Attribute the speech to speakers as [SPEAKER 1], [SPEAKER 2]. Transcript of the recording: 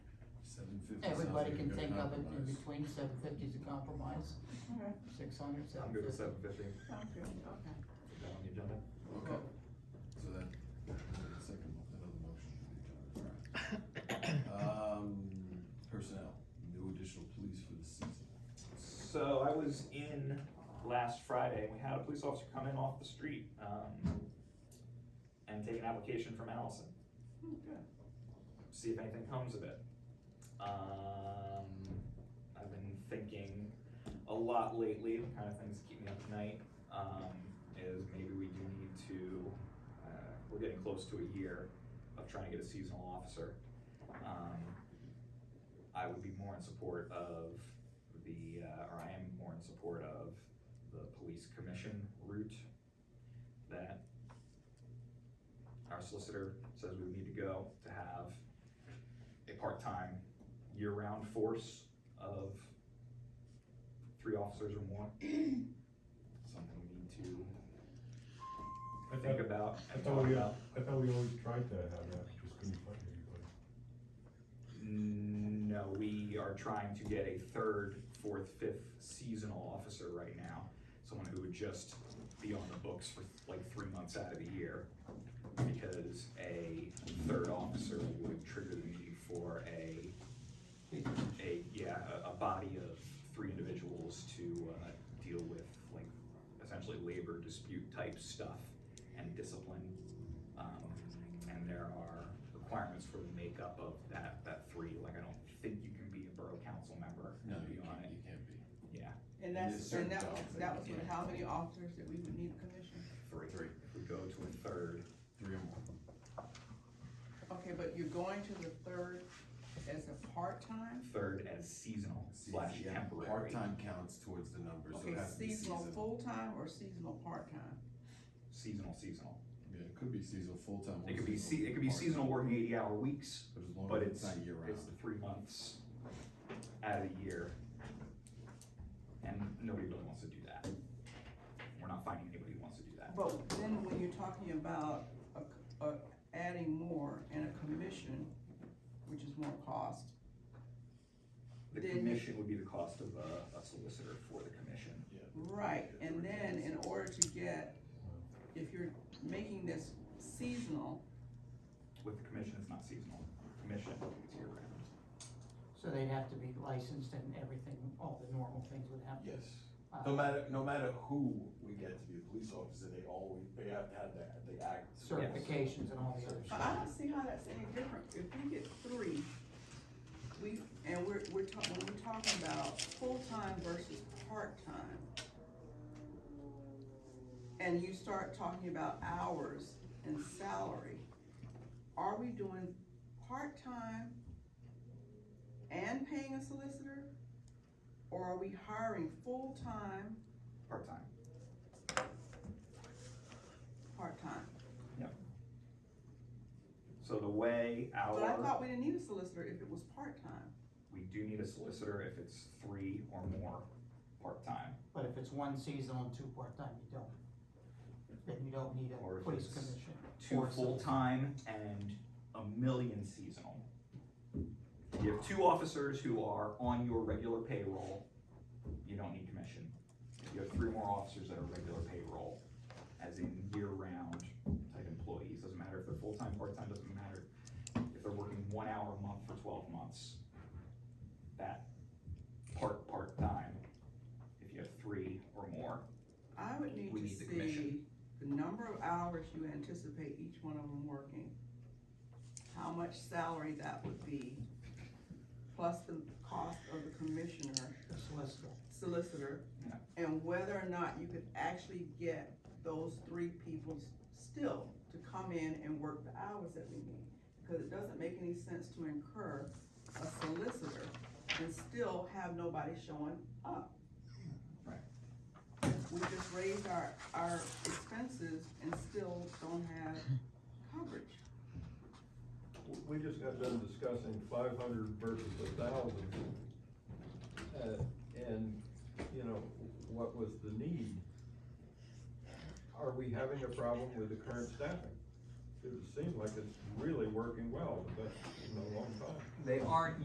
[SPEAKER 1] and fifty sounds
[SPEAKER 2] Everybody
[SPEAKER 1] like a
[SPEAKER 2] can
[SPEAKER 1] good
[SPEAKER 2] think of it in
[SPEAKER 1] compromise.
[SPEAKER 2] between, seven fifty is a compromise,
[SPEAKER 3] Alright,
[SPEAKER 2] six hundred,
[SPEAKER 4] I'm
[SPEAKER 2] seven
[SPEAKER 4] good
[SPEAKER 2] fifty.
[SPEAKER 4] with seven fifty,
[SPEAKER 3] sounds good, okay.
[SPEAKER 4] is that on the agenda?
[SPEAKER 1] Okay, so that, that second, that other motion should be done, alright. Um, personnel, no additional police for the season.
[SPEAKER 4] So I was in last Friday, and we had a police officer come in off the street, um, and take an application from Allison,
[SPEAKER 3] Hmm, Good.
[SPEAKER 4] see if anything comes of it. Um, I've been thinking a lot lately, the kind of things that keep me up at night, um, is maybe we do need to, uh, we're getting close to a year of trying to get a seasonal officer. Um, I would be more in support of the, uh, or I am more in support of the police commission route that our solicitor says we need to go to have a part-time, year-round force of three officers or more. Something we need to
[SPEAKER 5] I
[SPEAKER 4] think
[SPEAKER 5] thought,
[SPEAKER 4] about and
[SPEAKER 5] I thought
[SPEAKER 4] talk
[SPEAKER 5] we-
[SPEAKER 4] about.
[SPEAKER 5] I thought we always tried to have that, just couldn't find anybody.
[SPEAKER 4] No, we are trying to get a third, fourth, fifth seasonal officer right now. Someone who would just be on the books for like three months out of the year. Because a third officer would trigger the need for a, a, yeah, a, a body of three individuals to, uh, deal with like essentially labor dispute type stuff and discipline. Um, and there are requirements for the makeup of that, that three, like I don't think you can be a borough council member
[SPEAKER 1] No,
[SPEAKER 4] and be
[SPEAKER 1] you
[SPEAKER 4] on
[SPEAKER 1] can't,
[SPEAKER 4] it,
[SPEAKER 1] you can't be,
[SPEAKER 4] yeah.
[SPEAKER 3] And
[SPEAKER 1] there's
[SPEAKER 3] that's,
[SPEAKER 1] certain
[SPEAKER 3] and that was,
[SPEAKER 1] jobs that
[SPEAKER 3] that
[SPEAKER 1] you
[SPEAKER 3] was with
[SPEAKER 1] can't-
[SPEAKER 3] how many officers that we would need a commission?
[SPEAKER 4] Three. If we go to a third,
[SPEAKER 1] three or more.
[SPEAKER 3] Okay, but you're going to the third as a part-time?
[SPEAKER 4] third as seasonal slash
[SPEAKER 1] Season, yeah.
[SPEAKER 4] temporary.
[SPEAKER 1] Part-time counts towards the numbers, so
[SPEAKER 3] Okay,
[SPEAKER 1] it has to be
[SPEAKER 3] seasonal
[SPEAKER 1] seasonal.
[SPEAKER 3] full-time or seasonal part-time?
[SPEAKER 4] Seasonal, seasonal.
[SPEAKER 1] Yeah, it could be seasonal, full-time. or
[SPEAKER 4] It could be se- it could be
[SPEAKER 1] part-time.
[SPEAKER 4] seasonal working eighty hour weeks,
[SPEAKER 1] But as long
[SPEAKER 4] but
[SPEAKER 1] as it's
[SPEAKER 4] it's,
[SPEAKER 1] not year-round.
[SPEAKER 4] it's the three months out of the year. And nobody really wants to do that. We're not finding anybody who wants to do that.
[SPEAKER 3] But then when you're talking about a c- a- adding more and a commission, which is more cost,
[SPEAKER 4] The
[SPEAKER 3] Then-
[SPEAKER 4] commission would be the cost of a, a solicitor for the commission.
[SPEAKER 3] Right, and then in order to get, if you're making this seasonal,
[SPEAKER 4] With the commission, it's not seasonal. Commission is year round.
[SPEAKER 2] So they'd have to be licensed and everything, all the normal things would happen.
[SPEAKER 6] Yes,
[SPEAKER 2] Uh,
[SPEAKER 6] no matter, no matter who we get to be a police officer, they always, they have to have that, they act.
[SPEAKER 2] Certifications and all the other
[SPEAKER 3] but
[SPEAKER 2] stuff.
[SPEAKER 3] I don't see how that's any different. If we get three, we, and we're, we're talking, when we're talking about full-time versus part-time, and you start talking about hours and salary, are we doing part-time and paying a solicitor? Or are we hiring full-time,
[SPEAKER 4] Part-time.
[SPEAKER 3] part-time?
[SPEAKER 4] So the way our.
[SPEAKER 3] But I thought we didn't need a solicitor if it was part-time.
[SPEAKER 4] We do need a solicitor if it's three or more part-time,
[SPEAKER 2] But if it's one seasonal and two part-time, you don't. Then you don't need
[SPEAKER 4] Or
[SPEAKER 2] a
[SPEAKER 4] if
[SPEAKER 2] police
[SPEAKER 4] it's
[SPEAKER 2] commission.
[SPEAKER 4] two
[SPEAKER 2] Or so.
[SPEAKER 4] full-time and a million seasonal. You have two officers who are on your regular payroll, you don't need commission. You have three more officers that are regular payroll, as in year-round type employees, doesn't matter if they're full-time, part-time, doesn't matter. If they're working one hour a month for twelve months, that part, part-time, if you have three or more,
[SPEAKER 3] I would need
[SPEAKER 4] We
[SPEAKER 3] to
[SPEAKER 4] need the commission.
[SPEAKER 3] see the number of hours you anticipate each one of them working. How much salary that would be, plus the cost of the commissioner,
[SPEAKER 2] The solicitor.
[SPEAKER 3] solicitor,
[SPEAKER 4] Yeah.
[SPEAKER 3] and whether or not you could actually get those three people s- still to come in and work the hours that we need. Because it doesn't make any sense to incur a solicitor and still have nobody showing up.
[SPEAKER 4] Right.
[SPEAKER 3] We just raised our, our expenses and still don't have coverage.
[SPEAKER 7] We just got done discussing five hundred versus a thousand. Uh, And, you know, what was the need? Are we having a problem with the current staffing? It would seem like it's really working well, but in a long time.
[SPEAKER 4] they aren't